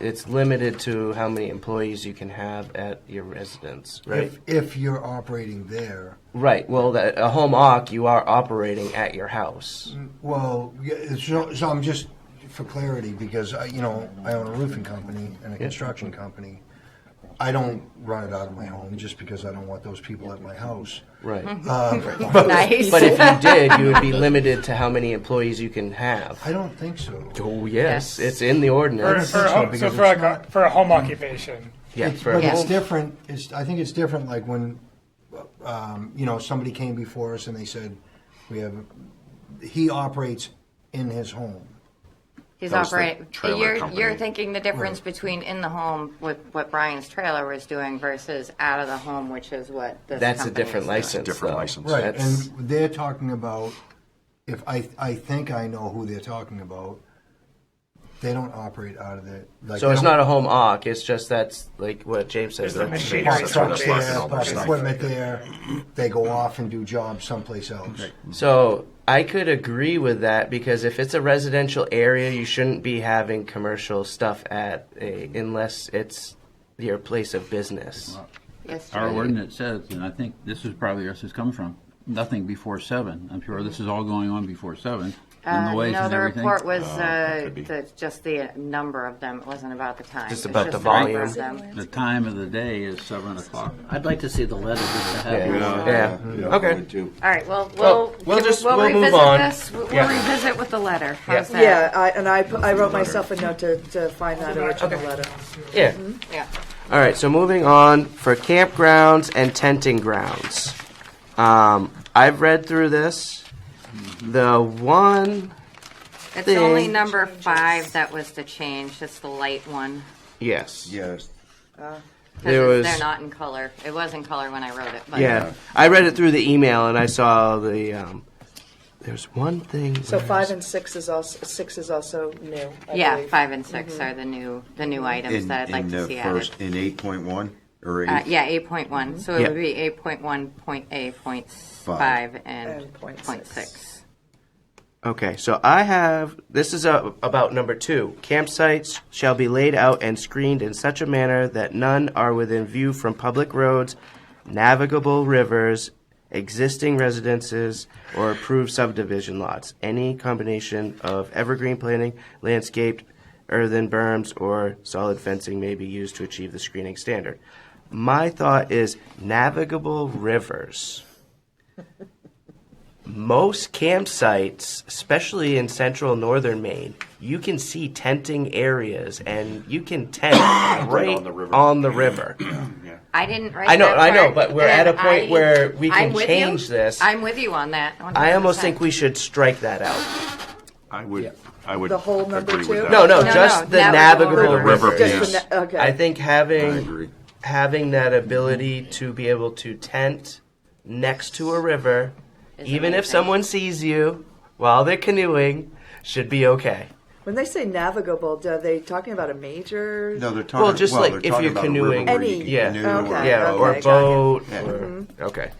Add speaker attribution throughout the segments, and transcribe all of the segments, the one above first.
Speaker 1: it's limited to how many employees you can have at your residence, right?
Speaker 2: If, if you're operating there,
Speaker 1: Right. Well, that, a home occ, you are operating at your house.
Speaker 2: Mm. well, yeah, so, so I'm just, for clarity, because I, you know, I own a roofing company and a construction company. I don't run it out of my home just because I don't want those people at my house. Um,
Speaker 1: Right.
Speaker 2: Mm-hmm.
Speaker 3: Nice.
Speaker 1: But if you did, you would be limited to how many employees you can have.
Speaker 2: I don't think so.
Speaker 1: Oh yes,
Speaker 3: Yes.
Speaker 1: it's in the
Speaker 4: For,
Speaker 1: ordinance.
Speaker 4: for a home,
Speaker 2: because
Speaker 4: so for
Speaker 2: it's
Speaker 4: like a, for a home occupation.
Speaker 1: yeah,
Speaker 2: It's,
Speaker 1: for
Speaker 2: but
Speaker 1: a
Speaker 2: it's
Speaker 1: home-
Speaker 2: different. It's I think it's different. Like when, um, you know, somebody came before us and they said, "We have." He operates in his home.
Speaker 3: He's
Speaker 5: That was the
Speaker 3: operating,
Speaker 5: trailer
Speaker 3: you're,
Speaker 5: company.
Speaker 3: you're thinking the difference between in the home with what Brian's trailer was doing versus out of the home, which is what this
Speaker 1: That's a
Speaker 3: company
Speaker 1: different
Speaker 3: is doing.
Speaker 1: license.
Speaker 5: Different
Speaker 1: though.
Speaker 5: license.
Speaker 2: Right,
Speaker 1: That's-
Speaker 2: and they're talking about if I I think I know who they're talking about. They don't operate out of it. Like
Speaker 1: So
Speaker 2: they
Speaker 1: it's
Speaker 2: don't-
Speaker 1: not a home occ. It's just that's like what James says.
Speaker 4: It's a
Speaker 1: that's-
Speaker 4: machine.
Speaker 2: park
Speaker 5: That's
Speaker 2: trucks
Speaker 5: where they're
Speaker 2: there,
Speaker 5: parking all
Speaker 2: park
Speaker 5: their stuff.
Speaker 2: equipment there. They go off and do jobs someplace else.
Speaker 1: So I could agree with that because if it's a residential area, you shouldn't be having commercial stuff at a, unless it's your place of business.
Speaker 3: Yes,
Speaker 6: Our
Speaker 3: sir.
Speaker 6: ordinance says, and I think this is probably where this has come from, nothing before seven. I'm sure this is all going on before seven. and
Speaker 3: Uh,
Speaker 6: the ways
Speaker 3: no,
Speaker 6: and
Speaker 3: the
Speaker 6: everything.
Speaker 3: report was
Speaker 1: Oh,
Speaker 5: that
Speaker 3: uh,
Speaker 5: could be.
Speaker 3: the, just the number of them. It wasn't about the time.
Speaker 1: Just
Speaker 3: It's
Speaker 1: about the
Speaker 3: number
Speaker 1: volume.
Speaker 3: of them.
Speaker 6: The time of the day is seven o'clock.
Speaker 7: I'd like to see the letter just to have.
Speaker 1: Yeah. Yeah. Okay.
Speaker 3: All right. Well, we'll
Speaker 1: Well, we'll just- we'll move
Speaker 3: revisit
Speaker 1: on.
Speaker 3: this. We'll, we'll
Speaker 1: Yeah.
Speaker 3: revisit with the letter. How's
Speaker 8: Yeah,
Speaker 3: that?
Speaker 8: I, and I, pu- I wrote myself a note to, to find that original letter.
Speaker 1: Yeah.
Speaker 3: Yeah.
Speaker 1: All right. So moving on for campgrounds and tenting grounds. Um, I've read through this. The one,
Speaker 3: It's only
Speaker 1: Thing.
Speaker 3: number five that was the change. It's the light one.
Speaker 1: yes.
Speaker 5: Yes.
Speaker 3: 'Cause
Speaker 1: There
Speaker 3: it's-
Speaker 1: was-
Speaker 3: They're not in color. It was in color when I wrote it. But
Speaker 1: Yeah. I read it through the email and I saw the. Um, there's one thing.
Speaker 8: So five and six is also, six is also new, I
Speaker 3: Yeah,
Speaker 8: believe.
Speaker 3: five and 6 are the new the new items
Speaker 9: In,
Speaker 3: that I'd like
Speaker 9: in
Speaker 3: to
Speaker 9: the
Speaker 3: see
Speaker 9: first,
Speaker 3: added.
Speaker 9: in eight point one or eight?
Speaker 3: Uh, yeah, eight point one. So it
Speaker 1: Yeah.
Speaker 3: would be eight point one point eight point five and
Speaker 8: And
Speaker 3: point
Speaker 8: point
Speaker 3: six.
Speaker 1: Okay, so I have this is uh about number two. Campsites shall be laid out and screened in such a manner that none are within view from public roads, navigable rivers, existing residences, or approved subdivision lots. Any combination of evergreen planting, landscaped, earthen berms, or solid fencing may be used to achieve the screening standard. My thought is navigable rivers most campsites, especially in central northern Maine, you can see tenting areas and you can tent right, on the river.
Speaker 3: I didn't write.
Speaker 1: I know-
Speaker 3: that
Speaker 1: I know,
Speaker 3: part,
Speaker 1: but we're at a point
Speaker 3: I-
Speaker 1: where we
Speaker 3: I'm
Speaker 1: can
Speaker 3: with
Speaker 1: change
Speaker 3: you.
Speaker 1: this.
Speaker 3: I'm with you on that. 100%.
Speaker 1: I almost think we should strike that out.
Speaker 5: I would, I would
Speaker 8: The whole number
Speaker 5: agree with
Speaker 8: two?
Speaker 5: that.
Speaker 1: No, no,
Speaker 3: No,
Speaker 1: just
Speaker 3: no,
Speaker 1: the
Speaker 3: navigable
Speaker 1: navigable,
Speaker 5: rivers.
Speaker 1: rivers.
Speaker 5: River
Speaker 8: Just the
Speaker 5: piece.
Speaker 8: ne- Okay.
Speaker 1: I think having
Speaker 5: I agree.
Speaker 1: having that ability to be able to tent next to a river, even if
Speaker 3: amazing.
Speaker 1: someone sees you while they're canoeing, should be okay.
Speaker 8: When they say navigable, are they talking about a major?
Speaker 9: No, they're talking,
Speaker 1: Well, just
Speaker 9: well,
Speaker 1: like
Speaker 9: they're
Speaker 1: if
Speaker 9: talking
Speaker 1: you're
Speaker 9: about a river
Speaker 1: canoeing.
Speaker 9: where you
Speaker 8: Any-
Speaker 9: can
Speaker 1: yeah.
Speaker 9: canoe or
Speaker 8: Okay,
Speaker 1: Yeah,
Speaker 9: boat.
Speaker 1: or
Speaker 8: got Mm-hmm. you.
Speaker 1: boat.
Speaker 9: Yeah.
Speaker 1: Or, Okay.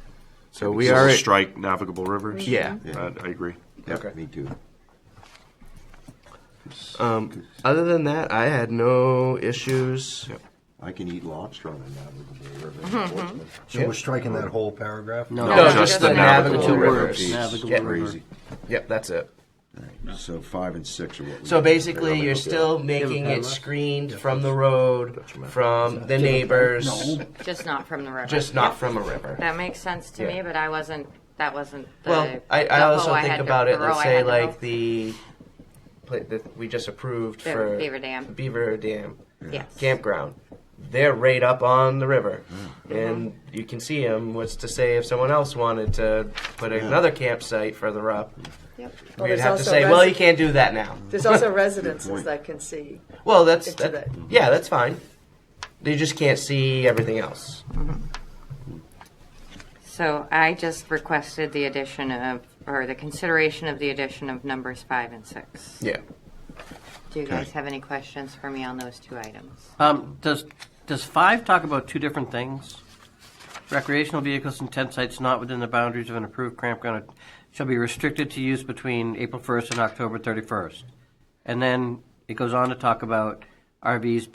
Speaker 1: So we
Speaker 5: We
Speaker 1: are.
Speaker 5: are strike navigable rivers.
Speaker 1: Yeah.
Speaker 5: I, I agree.
Speaker 9: Yeah, me too.
Speaker 1: Other than that, I had no issues.
Speaker 9: I can eat lobster on a navigable river
Speaker 1: Mm-hmm.
Speaker 9: in Portsmouth.
Speaker 2: So we're striking that whole paragraph.
Speaker 1: No,
Speaker 5: No,
Speaker 1: just,
Speaker 5: just
Speaker 1: the
Speaker 5: the
Speaker 1: navigable,
Speaker 5: navigable
Speaker 1: rivers.
Speaker 9: Jeez,
Speaker 7: Navigable
Speaker 1: Yeah.
Speaker 7: river.
Speaker 9: Crazy.
Speaker 1: Yep, that's it.
Speaker 9: So five and six are what we.
Speaker 1: So
Speaker 9: need.
Speaker 1: basically, you're still making it screened from the road, from the neighbors,
Speaker 3: just not from the river.
Speaker 1: just not from a river.
Speaker 3: That makes sense to me,
Speaker 1: Yeah.
Speaker 3: but I wasn't. That wasn't. The,
Speaker 1: Well, I,
Speaker 3: the
Speaker 1: I also
Speaker 3: hoe
Speaker 1: think
Speaker 3: had to-
Speaker 1: about
Speaker 3: the
Speaker 1: it.
Speaker 3: row
Speaker 1: Let's
Speaker 3: I
Speaker 1: say
Speaker 3: had to hoe.
Speaker 1: like the, pla- that we just approved
Speaker 3: The
Speaker 1: for
Speaker 3: Beaver Dam.
Speaker 1: Beaver Dam
Speaker 3: Yes.
Speaker 1: campground. They're right up on the river, and
Speaker 3: Mm-hmm.
Speaker 1: you can see them. What's to say if someone else wanted to put another campsite further up?
Speaker 3: Yep.
Speaker 8: Well,
Speaker 1: we'd
Speaker 8: there's
Speaker 1: have to
Speaker 8: also
Speaker 1: say, well,
Speaker 8: resi-
Speaker 1: you can't do that now.
Speaker 8: There's also residences that can see.
Speaker 1: Well, that's
Speaker 8: Into
Speaker 1: that,
Speaker 8: that.
Speaker 1: yeah, that's fine. They just can't see everything else.
Speaker 3: So I just requested the addition of, or the consideration of the addition of numbers five and six.
Speaker 1: Yeah.
Speaker 3: Do you guys have any questions for me on those two items?
Speaker 7: Um, does, does five talk about two different things? Recreational vehicles and tent sites not within the boundaries of an approved campground shall be restricted to use between April first and October thirty-first. And then it goes on to talk about RVs